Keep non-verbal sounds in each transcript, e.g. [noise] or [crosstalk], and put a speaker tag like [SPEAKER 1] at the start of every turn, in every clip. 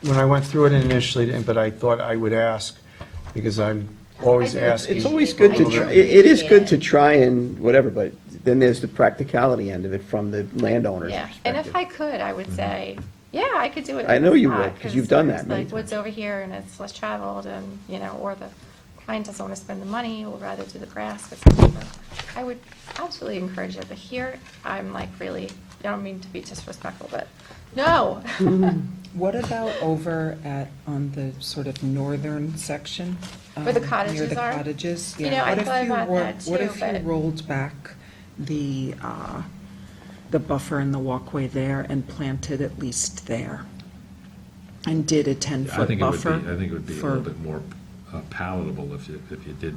[SPEAKER 1] when I went through it initially, but I thought I would ask, because I'm always
[SPEAKER 2] I think
[SPEAKER 1] asking.
[SPEAKER 3] It's always good to, try. it it is good to try and whatever, but then there's the practicality end of it from the landowner's
[SPEAKER 2] Yeah, and if
[SPEAKER 3] perspective. Mm-hmm.
[SPEAKER 2] I could, I would say, yeah, I could do it.
[SPEAKER 3] I know you
[SPEAKER 2] Ah,
[SPEAKER 3] would, 'cause you've done that
[SPEAKER 2] it's
[SPEAKER 3] many
[SPEAKER 2] Like woods over here and it's less traveled and, you know, or the client doesn't want to spend the money, would rather do the grass, but whatever. I would absolutely encourage it, but here, I'm like really, I don't mean to be disrespectful, but no.
[SPEAKER 4] What about over at, on the sort of northern section?
[SPEAKER 2] Where the
[SPEAKER 4] um, Near
[SPEAKER 2] cottages
[SPEAKER 4] the
[SPEAKER 2] are?
[SPEAKER 4] cottages,
[SPEAKER 2] You
[SPEAKER 4] yeah.
[SPEAKER 2] know, I
[SPEAKER 4] What if
[SPEAKER 2] thought
[SPEAKER 4] you
[SPEAKER 2] about
[SPEAKER 4] ro-
[SPEAKER 2] that
[SPEAKER 4] What
[SPEAKER 2] too,
[SPEAKER 4] if you
[SPEAKER 2] but-
[SPEAKER 4] rolled back the, uh, the buffer and the walkway there and planted at least there? And did a
[SPEAKER 5] I
[SPEAKER 4] 10-foot
[SPEAKER 5] think it would be,
[SPEAKER 4] buffer?
[SPEAKER 5] I think it would be a
[SPEAKER 4] for-
[SPEAKER 5] little bit more uh, palatable if you, if you did,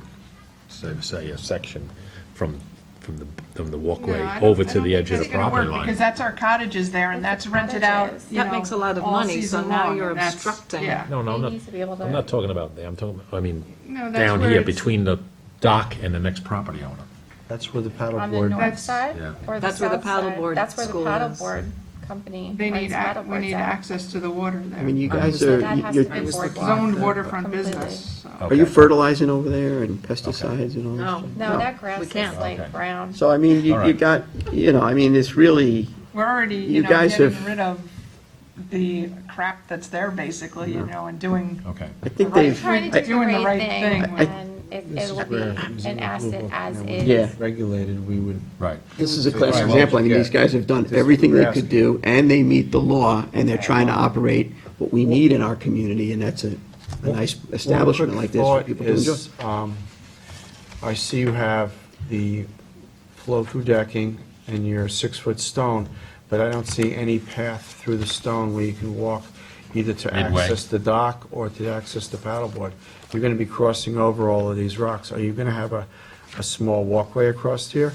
[SPEAKER 5] say, say a section from, from the, from the walkway
[SPEAKER 6] No, I don't-
[SPEAKER 5] over
[SPEAKER 6] I
[SPEAKER 5] to
[SPEAKER 6] don't
[SPEAKER 5] the
[SPEAKER 6] think
[SPEAKER 5] edge of
[SPEAKER 6] that's
[SPEAKER 5] the
[SPEAKER 6] gonna work,
[SPEAKER 5] property line.
[SPEAKER 6] Because that's our cottages there, and that's rented out,
[SPEAKER 2] Cottages.
[SPEAKER 6] you
[SPEAKER 4] That
[SPEAKER 6] know,
[SPEAKER 4] makes a lot of
[SPEAKER 6] all
[SPEAKER 4] money, so
[SPEAKER 6] season
[SPEAKER 4] now
[SPEAKER 6] long,
[SPEAKER 4] you're
[SPEAKER 6] and that's-
[SPEAKER 4] obstructing.
[SPEAKER 6] Yeah.
[SPEAKER 5] No, no,
[SPEAKER 2] They
[SPEAKER 5] I'm not,
[SPEAKER 2] need to be able to-
[SPEAKER 5] I'm not talking about there, I'm talking, I mean,
[SPEAKER 6] No, that's
[SPEAKER 5] down
[SPEAKER 6] where
[SPEAKER 5] here,
[SPEAKER 6] it's-
[SPEAKER 5] between the dock and the next property owner.
[SPEAKER 1] That's where the
[SPEAKER 2] [laughs] On the
[SPEAKER 1] paddleboard,
[SPEAKER 2] north
[SPEAKER 6] That's-
[SPEAKER 2] side
[SPEAKER 5] yeah.
[SPEAKER 2] or the
[SPEAKER 4] That's where the
[SPEAKER 2] south side?
[SPEAKER 4] paddleboard
[SPEAKER 2] That's where the
[SPEAKER 4] school is.
[SPEAKER 2] paddleboard company.
[SPEAKER 6] They
[SPEAKER 2] runs
[SPEAKER 6] need, ac- we
[SPEAKER 2] paddleboards
[SPEAKER 6] need
[SPEAKER 2] at.
[SPEAKER 6] access to the water there.
[SPEAKER 3] I mean, you
[SPEAKER 5] I
[SPEAKER 3] guys
[SPEAKER 2] So
[SPEAKER 3] are,
[SPEAKER 2] that has
[SPEAKER 3] you're,
[SPEAKER 2] to be
[SPEAKER 4] I was
[SPEAKER 2] boardwalk.
[SPEAKER 4] looking-
[SPEAKER 6] Zoned waterfront
[SPEAKER 2] Completely.
[SPEAKER 6] business, so.
[SPEAKER 3] are you fertilizing over there and pesticides and all
[SPEAKER 7] No.
[SPEAKER 3] that? stuff?
[SPEAKER 2] No, that grass
[SPEAKER 7] we
[SPEAKER 2] is
[SPEAKER 7] can't.
[SPEAKER 2] like
[SPEAKER 5] Okay.
[SPEAKER 2] brown.
[SPEAKER 3] So I mean, you,
[SPEAKER 5] All
[SPEAKER 3] you
[SPEAKER 5] right.
[SPEAKER 3] got, you know, I mean, it's really,
[SPEAKER 6] We're already, you
[SPEAKER 3] You
[SPEAKER 6] know,
[SPEAKER 3] guys
[SPEAKER 6] getting
[SPEAKER 3] have-
[SPEAKER 6] rid of the crap that's there basically, you know, and doing
[SPEAKER 5] Okay.
[SPEAKER 3] I think
[SPEAKER 6] Right.
[SPEAKER 3] they've,
[SPEAKER 2] Trying to
[SPEAKER 3] I-
[SPEAKER 2] do the
[SPEAKER 6] Doing the
[SPEAKER 2] right
[SPEAKER 6] right
[SPEAKER 2] thing
[SPEAKER 6] thing.
[SPEAKER 2] and it
[SPEAKER 1] this is
[SPEAKER 2] it will be
[SPEAKER 1] where it was in
[SPEAKER 2] an
[SPEAKER 1] the
[SPEAKER 2] asset
[SPEAKER 1] rulebook,
[SPEAKER 2] as
[SPEAKER 1] and it
[SPEAKER 2] is.
[SPEAKER 3] yeah.
[SPEAKER 1] regulated, we would,
[SPEAKER 5] Right.
[SPEAKER 3] This is a
[SPEAKER 1] Right,
[SPEAKER 3] classic
[SPEAKER 1] well,
[SPEAKER 3] example. I mean,
[SPEAKER 1] yeah.
[SPEAKER 3] these guys have done
[SPEAKER 1] Just
[SPEAKER 3] everything they
[SPEAKER 1] asking.
[SPEAKER 3] could do, and they meet the law, and they're trying to operate what we need in our community, and that's a, a nice establishment
[SPEAKER 1] One
[SPEAKER 3] like
[SPEAKER 1] quick
[SPEAKER 3] this for
[SPEAKER 1] thought
[SPEAKER 3] people to enjoy.
[SPEAKER 1] is, um, I see you have the flow-through decking and your six-foot stone, but I don't see any path through the stone where you can walk either to
[SPEAKER 5] Midway.
[SPEAKER 1] access the dock or to access the paddleboard. You're going to be crossing over all of these rocks. Are you going to have a, a small walkway across here?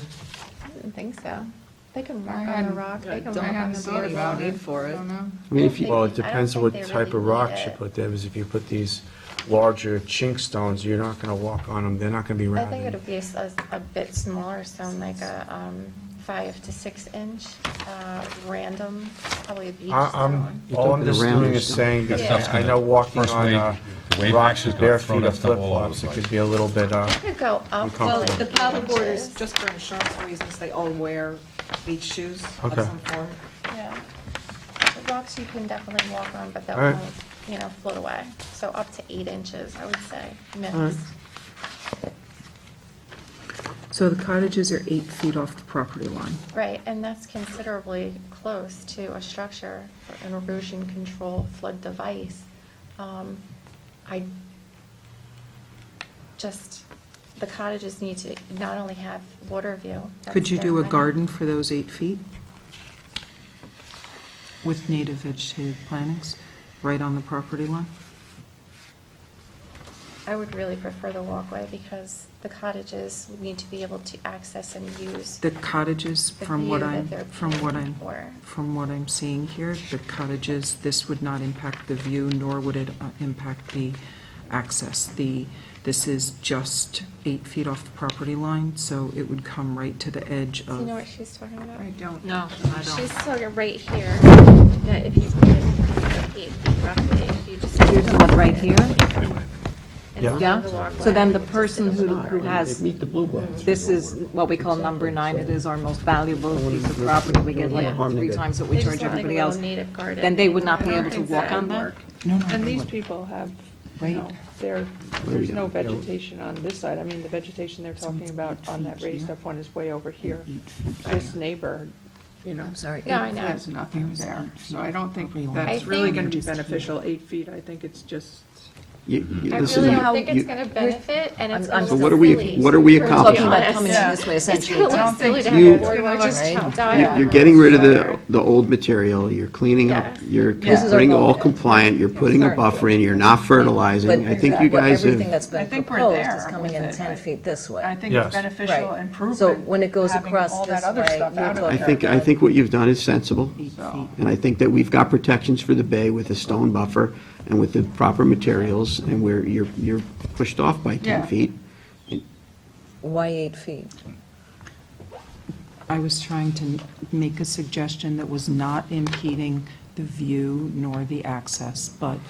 [SPEAKER 2] I don't think so. They can
[SPEAKER 6] I
[SPEAKER 2] walk on a
[SPEAKER 6] hadn't-
[SPEAKER 2] rock,
[SPEAKER 7] I
[SPEAKER 2] they can
[SPEAKER 7] don't
[SPEAKER 2] walk
[SPEAKER 6] I
[SPEAKER 2] on
[SPEAKER 6] hadn't
[SPEAKER 2] the
[SPEAKER 6] thought
[SPEAKER 2] boardwalk.
[SPEAKER 6] about
[SPEAKER 7] need
[SPEAKER 6] it.
[SPEAKER 7] for
[SPEAKER 6] I
[SPEAKER 7] it.
[SPEAKER 6] don't know.
[SPEAKER 3] I mean, if you,
[SPEAKER 1] Well,
[SPEAKER 2] I
[SPEAKER 1] it
[SPEAKER 2] don't
[SPEAKER 1] depends
[SPEAKER 2] think
[SPEAKER 1] what
[SPEAKER 2] they
[SPEAKER 1] type
[SPEAKER 2] really
[SPEAKER 1] of rocks
[SPEAKER 2] need
[SPEAKER 1] you
[SPEAKER 2] it.
[SPEAKER 1] put there, because if you put these larger chink stones, you're not going to walk on them, they're not going to be
[SPEAKER 2] I
[SPEAKER 1] rounded.
[SPEAKER 2] think it'll be a s- a, s- a bit smaller, so like a, um, five to six inch, uh, random, probably a beach
[SPEAKER 1] I-
[SPEAKER 2] stone.
[SPEAKER 1] I'm, all I'm
[SPEAKER 3] You're
[SPEAKER 1] just
[SPEAKER 3] talking around
[SPEAKER 1] doing is
[SPEAKER 3] yourself.
[SPEAKER 1] saying, that
[SPEAKER 2] stuff's
[SPEAKER 1] I I know walking
[SPEAKER 5] first
[SPEAKER 1] on
[SPEAKER 5] wave-
[SPEAKER 1] uh,
[SPEAKER 5] the wave
[SPEAKER 1] rocks
[SPEAKER 5] action's
[SPEAKER 1] with
[SPEAKER 5] gonna
[SPEAKER 1] bare
[SPEAKER 5] throw
[SPEAKER 1] feet or
[SPEAKER 5] that stuff all over
[SPEAKER 1] flip-flops,
[SPEAKER 5] the
[SPEAKER 1] it
[SPEAKER 5] place.
[SPEAKER 1] could be a little bit, uh,
[SPEAKER 2] Could go up.
[SPEAKER 1] Uncomfortable.
[SPEAKER 2] like
[SPEAKER 1] Well,
[SPEAKER 4] The
[SPEAKER 2] eight
[SPEAKER 4] paddleboard is
[SPEAKER 2] inches.
[SPEAKER 4] just for insurance reasons, they all wear beach shoes of
[SPEAKER 1] Okay.
[SPEAKER 4] some form.
[SPEAKER 2] Yeah. The rocks you can definitely walk on, but that
[SPEAKER 1] All right.
[SPEAKER 2] won't, you know, float away. So up to eight inches, I would say, max.
[SPEAKER 4] So the cottages are eight feet off the property line.
[SPEAKER 2] Right, and that's considerably close to a structure for an erosion control flood device. Um, I just, the cottages need to not only have water view. that's
[SPEAKER 4] Could you
[SPEAKER 2] their
[SPEAKER 4] do a
[SPEAKER 2] main-
[SPEAKER 4] garden for those eight feet? With native vegetative plantings, right on the property line?
[SPEAKER 2] I would really prefer the walkway because the cottages need to be able to access and use
[SPEAKER 4] The cottages,
[SPEAKER 2] The
[SPEAKER 4] from what
[SPEAKER 2] view that
[SPEAKER 4] I'm,
[SPEAKER 2] they're
[SPEAKER 4] from what I'm,
[SPEAKER 2] planning for.
[SPEAKER 4] from what I'm seeing here, the cottages, this would not impact the view, nor would it uh, impact the access. The, this is just eight feet off the property line, so it would come right to the edge
[SPEAKER 2] Do you know
[SPEAKER 4] of,
[SPEAKER 2] what she's talking about?
[SPEAKER 6] I don't.
[SPEAKER 7] No, I
[SPEAKER 2] She's
[SPEAKER 7] don't.
[SPEAKER 2] talking right here, that if you put eight feet roughly, if you just.
[SPEAKER 7] You're talking about right here?
[SPEAKER 2] And
[SPEAKER 1] Yeah.
[SPEAKER 2] along
[SPEAKER 7] Yeah,
[SPEAKER 2] the walkway,
[SPEAKER 7] so then the
[SPEAKER 2] which is
[SPEAKER 7] person who, who
[SPEAKER 3] they
[SPEAKER 7] has,
[SPEAKER 3] meet the blue book.
[SPEAKER 7] this is what we call number nine, it is our most valuable piece of property, we get like
[SPEAKER 3] Harm to
[SPEAKER 7] three
[SPEAKER 3] good.
[SPEAKER 7] times what
[SPEAKER 2] They
[SPEAKER 7] we
[SPEAKER 2] just
[SPEAKER 7] charge
[SPEAKER 2] don't think
[SPEAKER 7] everybody
[SPEAKER 2] about
[SPEAKER 7] else,
[SPEAKER 2] native garden.
[SPEAKER 7] then they would not
[SPEAKER 6] I
[SPEAKER 7] be
[SPEAKER 6] don't
[SPEAKER 7] able to
[SPEAKER 6] think
[SPEAKER 7] walk
[SPEAKER 6] that
[SPEAKER 7] on
[SPEAKER 6] would
[SPEAKER 7] that?
[SPEAKER 6] work.
[SPEAKER 4] no, no,
[SPEAKER 8] And
[SPEAKER 4] they
[SPEAKER 8] these
[SPEAKER 4] wouldn't.
[SPEAKER 8] people have,
[SPEAKER 4] Right.
[SPEAKER 8] no, there,
[SPEAKER 3] we
[SPEAKER 8] there's
[SPEAKER 3] go.
[SPEAKER 8] no
[SPEAKER 3] There we go.
[SPEAKER 8] vegetation on this side. I mean, the vegetation they're talking about on that raised up one is way over here. This neighbor, you know,
[SPEAKER 7] sorry.
[SPEAKER 2] No, I know.
[SPEAKER 6] There's nothing there, so I don't think
[SPEAKER 4] Probably only-
[SPEAKER 6] that's
[SPEAKER 2] I
[SPEAKER 6] really
[SPEAKER 2] think-
[SPEAKER 6] gonna be beneficial, eight feet, I think it's just.
[SPEAKER 3] You- you-
[SPEAKER 2] I
[SPEAKER 3] this
[SPEAKER 2] really
[SPEAKER 3] is-
[SPEAKER 2] don't think
[SPEAKER 3] you-
[SPEAKER 2] it's gonna benefit, and it's
[SPEAKER 7] I'm-
[SPEAKER 2] gonna
[SPEAKER 7] I'm- So
[SPEAKER 2] look
[SPEAKER 3] what are we-
[SPEAKER 2] silly.
[SPEAKER 3] what are we
[SPEAKER 2] We're gonna look
[SPEAKER 7] Talking about
[SPEAKER 2] silly.
[SPEAKER 7] coming
[SPEAKER 6] Yeah.
[SPEAKER 7] in this way
[SPEAKER 2] It's
[SPEAKER 7] essentially.
[SPEAKER 2] gonna
[SPEAKER 6] I don't
[SPEAKER 2] look silly
[SPEAKER 6] think
[SPEAKER 2] to
[SPEAKER 6] so.
[SPEAKER 2] have
[SPEAKER 3] You-
[SPEAKER 2] a board where just
[SPEAKER 7] Right.
[SPEAKER 2] chop
[SPEAKER 3] you-
[SPEAKER 2] dial.
[SPEAKER 3] You're getting rid of the, the old material, you're cleaning up,
[SPEAKER 2] Yes.
[SPEAKER 3] you're
[SPEAKER 7] This is our
[SPEAKER 3] putting all
[SPEAKER 7] goal.
[SPEAKER 3] compliant, you're putting a
[SPEAKER 7] Sorry.
[SPEAKER 3] buffer in, you're not fertilizing. I think you
[SPEAKER 7] But
[SPEAKER 3] guys have.
[SPEAKER 7] Everything that's
[SPEAKER 6] I
[SPEAKER 7] been
[SPEAKER 6] think we're
[SPEAKER 7] proposed
[SPEAKER 6] there
[SPEAKER 7] is coming
[SPEAKER 6] with
[SPEAKER 7] in
[SPEAKER 6] it.
[SPEAKER 7] ten feet this
[SPEAKER 6] I
[SPEAKER 7] way.
[SPEAKER 6] think it's
[SPEAKER 1] Yes.
[SPEAKER 6] beneficial
[SPEAKER 7] Right.
[SPEAKER 6] improvement.
[SPEAKER 7] So when it goes
[SPEAKER 6] having
[SPEAKER 7] across
[SPEAKER 6] all that
[SPEAKER 7] this
[SPEAKER 6] other
[SPEAKER 7] way,
[SPEAKER 6] stuff
[SPEAKER 7] you're
[SPEAKER 6] out of
[SPEAKER 3] I
[SPEAKER 6] there.
[SPEAKER 3] think, I think what you've done is sensible,
[SPEAKER 6] So-
[SPEAKER 3] and I think that we've got protections for the bay with a stone buffer and with the proper materials, and where you're, you're pushed off by
[SPEAKER 6] Yeah.
[SPEAKER 3] 10 feet.
[SPEAKER 7] Why eight feet?
[SPEAKER 4] I was trying to make a suggestion that was not impeding the view nor the access, but